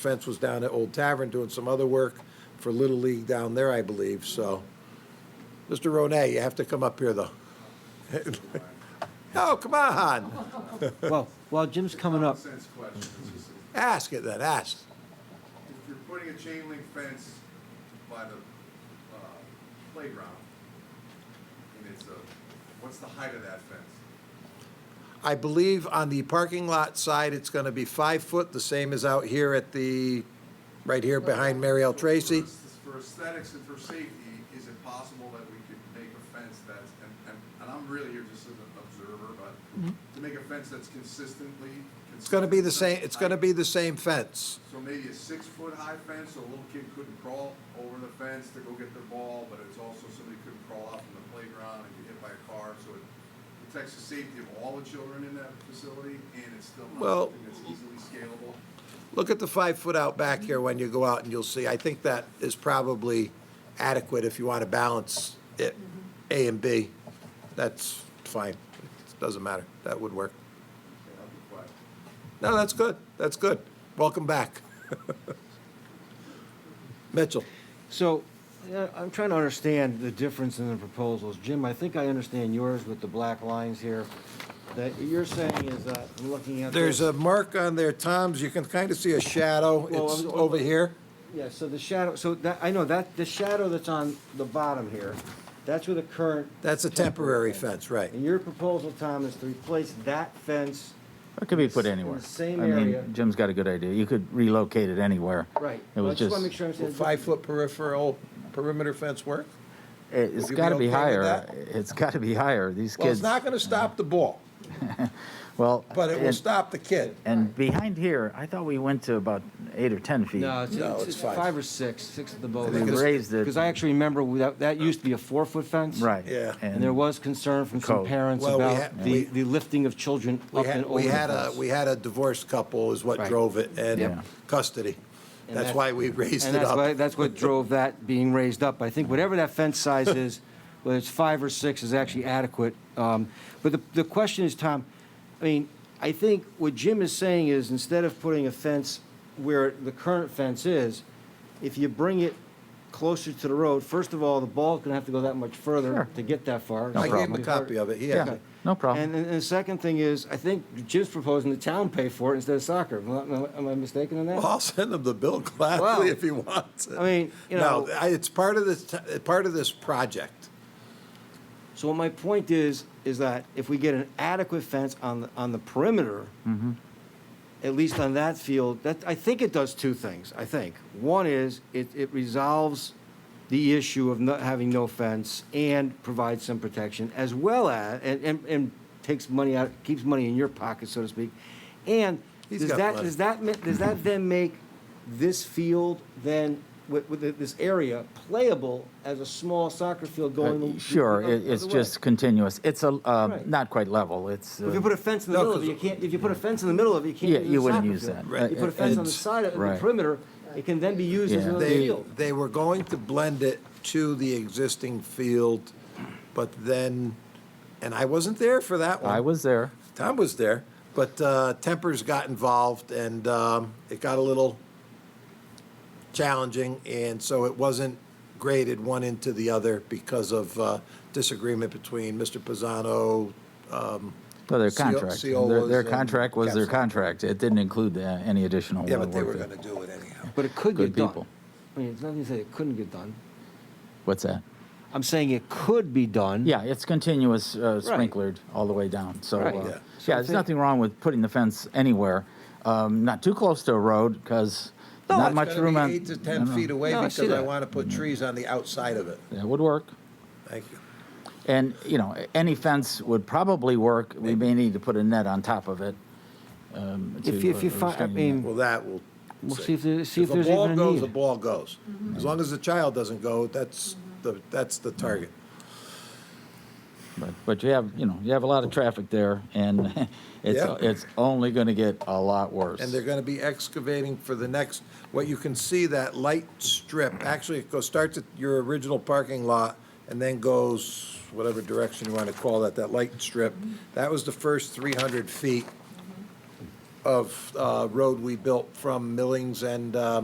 Fence was down at Old Tavern doing some other work for Little League down there, I believe, so. Mr. Ronay, you have to come up here, though. No, come on, Well, while Jim's coming up, Common sense question. It's just, ask it then, ask. If you're putting a chain link fence by the uh, playground, and it's a, what's the height of that fence? I believe on the parking lot side, it's gonna be five foot, the same as out here at the, right here behind Mary L. Tracy. For- For aesthetics and for safety, is it possible that we could make a fence that's, and, and, and I'm really here just as an observer, but Mm-hmm. to make a fence that's consistently. It's gonna be the same, it's gonna be the same fence. So maybe a six-foot-high fence, so a little kid couldn't crawl over the fence to go get their ball, but it's also somebody couldn't crawl out from the playground and get hit by a car, so it protects the safety of all the children in that facility, and it's still Well- not something that's easily scalable. Look at the five foot out back here when you go out and you'll see, I think that is probably adequate if you want to balance it, A and B. That's fine, it doesn't matter, that would work. Okay, I'll be quiet. No, that's good, that's good. Welcome back. Mitchell, so uh, I'm trying to understand the difference in the proposals. Jim, I think I understand yours with the black lines here. That what you're saying is that I'm looking at. there's this- a mark on there, Tom's, you can kind of see a shadow, Well, it's I'm- over here. Yeah, so the shadow, so that, I know that, the shadow that's on the bottom here, that's where the current, That's a temporary fence, right. and your proposal, Tom, is to replace that fence. It could be put In the anywhere. same I mean, area. Jim's got a good idea. You could relocate it anywhere. Right. It Well, I was just just, wanna make sure I understand. Five foot peripheral perimeter fence work? it- it's Would you got to be be okay with higher. that? It's got to be higher. These Well, it's kids, not going to stop the ball, well. but it will and- stop the kid. And behind here, I thought we went to about eight or 10 feet. No, it's, No, it's- it's it's five. five or six, six of the bow. I think We it's- raised it. Because I actually remember we- that, that used to be a four-foot fence. Right. Yeah. And there was concern from some Code. parents Well, we about had- we- the, the lifting of children We up and had, over we the had a, fence. we had a divorced couple is what Right. drove it, and Yeah. custody. And That's that's- why we raised And it that's why, up. that's what drove that being raised up. I think whatever that fence size is, whether it's five or six, is actually adequate. Um, But the, the question is, Tom, I mean, I think what Jim is saying is, instead of putting a fence where the current fence is, if you bring it closer to the road, first of all, the ball's gonna have to go that much further Sure. to get that far. I gave him a copy of it, he has Yeah. it. No problem. And, and the second thing is, I think Jim's proposing the town pay for it instead of soccer. Am I- Am I mistaken in that? Well, I'll send him the bill Wow. gladly if he wants it. I mean, you know- No, I- it's part of this, t- part of this project. So what my point is, is that if we get an adequate fence on, the on the perimeter, Mm-hmm. at least on that field, that, I think it does two things, I think. One is, it, it resolves the issue of not having no fence and provides some protection, as well as, and, and, and takes money out, keeps money in your pocket, so to speak. And He's does got that, plenty. does that, ma- does that then make this field then, with, with this area playable as a small soccer field Uh, going the the- the Sure, it- other it's way? just continuous. It's a, uh, Right. not quite level. It's, If you uh, put a fence in the No, middle of it, you 'cause- can't, if you put a fence in the middle of it, you can't Yeah, use you a wouldn't soccer use field. that. You put a fence on the It's- side of the right. perimeter, it can then be used as Yeah. another They, field. they were going to blend it to the existing field, but then, and I wasn't there for that one. I was there. Tom was there, but uh, tempers got involved and um, it got a little challenging, and so it wasn't graded one into the other because of uh, disagreement between Mr. Pisano. Well, their CO contract, was, their, their um, contract was their Capsule. contract. It didn't include uh, any additional Yeah, uh, but they work were that- going to do it anyhow. But it could Good get done. people. I mean, it's nothing to say it couldn't get done. What's that? I'm saying it could be done. Yeah, it's continuous uh, sprinklered all the way down, so, Right. uh, Yeah. yeah, So I there's think- nothing wrong with putting the fence anywhere, Um, not too close to a road, because No, not it's much room on. Eight to 10 feet away No, I Mm-hmm. because see I that. want to put trees on the outside of it. That would work, Thank you. and, you know, any fence would probably work, we may need to put a net on top of it. um, to, If you, if you uh, find, I restrain mean, Well, that will. We'll see if there- see if there's a ball even a goes, need. a ball goes. Mm-hmm. As long as the child doesn't go, that's the that's the target. But, but you have, you know, you have a lot of traffic there, and it's, Yeah. it's only gonna get a lot worse. And they're gonna be excavating for the next, what you can see, that light strip, actually, it goes, starts at your original parking lot and then goes whatever direction you wanna call that, that light strip. That was the first three hundred feet. of uh, road we built from Millings and uh,